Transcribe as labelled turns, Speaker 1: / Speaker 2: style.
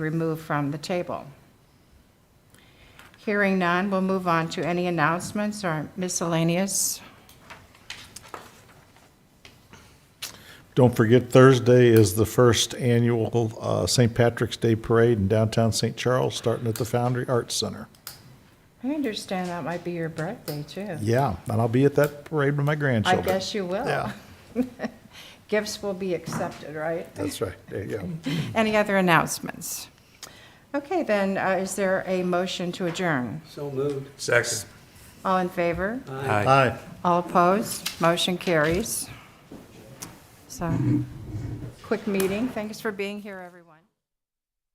Speaker 1: removed from the table. Hearing none, we'll move on to any announcements or miscellaneous.
Speaker 2: Don't forget, Thursday is the first annual uh, St. Patrick's Day Parade in downtown St. Charles, starting at the Foundry Arts Center.
Speaker 1: I understand that might be your birthday, too.
Speaker 2: Yeah, and I'll be at that parade with my
Speaker 1: I
Speaker 2: grandchildren.
Speaker 1: guess you will.
Speaker 2: Yeah,
Speaker 1: Gifts will be accepted, right?
Speaker 2: that's right. There you go.
Speaker 1: Any other announcements? Okay, then, uh, is there a motion to adjourn?
Speaker 3: So moved.
Speaker 4: Second.
Speaker 1: All in favor?
Speaker 3: Aye.
Speaker 2: Aye.
Speaker 1: All opposed? Motion carries. So, quick meeting. Thanks for being here, everyone.